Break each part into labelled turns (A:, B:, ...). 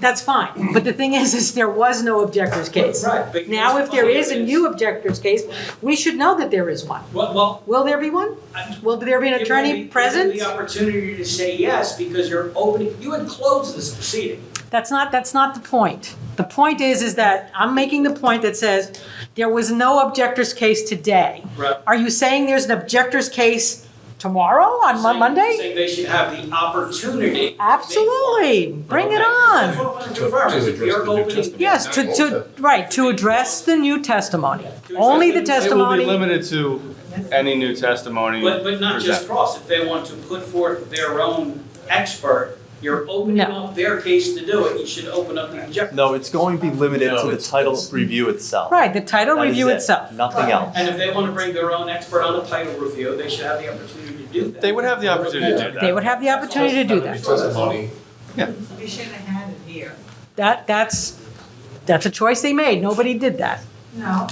A: that's fine. But the thing is, is there was no objector's case.
B: Right, but
A: Now,
B: here's
A: if there
B: the
A: is a
B: thing
A: new objector's case, we should know that there is one.
B: Well, well,
A: Will there be one?
B: I'm-
A: Will there be an
B: given the-
A: attorney
B: given
A: present?
B: The opportunity to say yes because you're opening, you had closed this proceeding.
A: That's not, that's not the point. The point is, is that I'm making the point that says there was no objector's case today.
B: Right.
A: Are you saying there's an objector's case tomorrow on Mon-
B: Saying-
A: Monday?
B: Saying they should have the opportunity. to make one.
A: Absolutely. Bring it
B: Okay. That's
A: on.
B: what I wanted to confirm, is if
C: To address
B: you're
C: the new
B: opening.
C: testimony.
A: Yes, to, to, right, to address the new testimony.
B: To
A: Only the
B: address the-
D: It will be
A: testimony.
D: limited to any new testimony.
B: But, but not just cross, if they want to put forth their own expert, you're opening
A: No.
B: up their case to do it, you should open up the objection.
E: No, it's going to be limited
C: No,
E: to the
C: it's-
E: title review itself.
A: Right, the title
E: That is
A: review
E: it.
A: itself.
E: Nothing else.
B: And if they want to bring their own expert on a title review, they should have the opportunity to do that.
D: They would have the opportunity to do
A: They would have the opportunity to do that.
C: Testimony.
F: We should have had it here.
A: That, that's, that's a choice they made. Nobody did that.
F: No,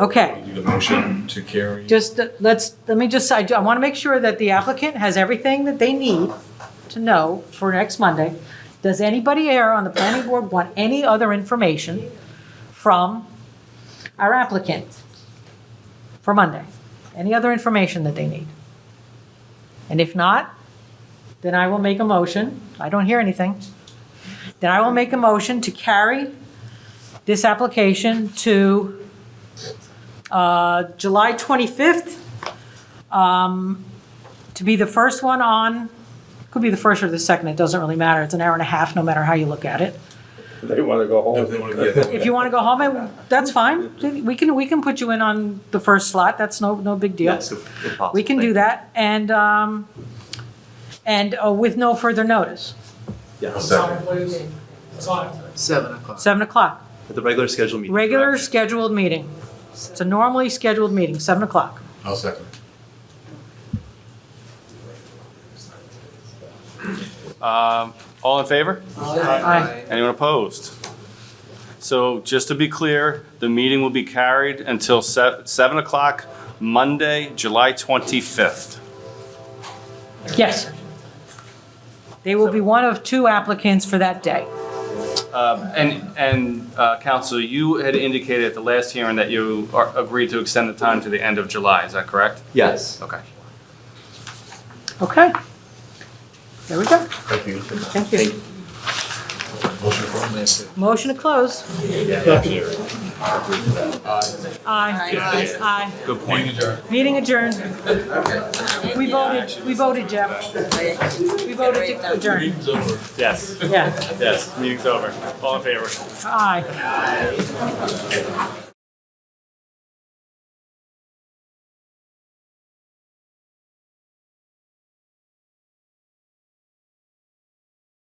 A: Okay.
C: Do the motion to carry.
A: Just, uh, let's, let me just, I, do- I want to make sure that the applicant has everything that they need to know for next Monday. Does anybody here on the planning board want any other information from our applicant for Monday? Any other information that they need? And if not, then I will make a motion. I don't hear anything. Then I will make a motion to carry this application to uh, July 25th, um, to be the first one on, could be the first or the second, it doesn't really matter, it's an hour and a half, no matter how you look at it.
G: They want to go
C: If
G: home.
C: they want to get.
A: If you want to go home, I- that's fine, we can, we can put you in on the first slot, that's no, no big deal.
E: Yes, if- if possible.
A: We can do that, and, um, and uh, with no further notice,
E: Yes.
C: Second.
H: Seven o'clock.
A: 7 o'clock,
E: At the regular scheduled meeting.
A: regular
E: correct?
A: scheduled meeting. It's a normally scheduled meeting, 7 o'clock.
C: I'll second.
D: that. Um, All in favor?
A: Aye.
D: Anyone opposed? So just to be clear, the meeting will be carried until se- 7 o'clock, Monday, July 25th.
A: Yes. They will be one of two applicants for that day.
D: Uh, And, and uh, counsel, you had indicated at the last hearing that you are- agreed to extend the time to the end of July, is that correct?
E: Yes.
D: Okay.
A: Okay. There we go.
C: Thank you.
A: Thank you.
C: Motion for it.
A: Motion to close. Aye.
H: Aye.
A: Aye.
D: Good point.
A: Meeting adjourned. We voted, we voted, Jeff. We voted to adjourn.
D: Yes,
A: Yeah,
D: yes, meeting's over. All in favor?
A: aye.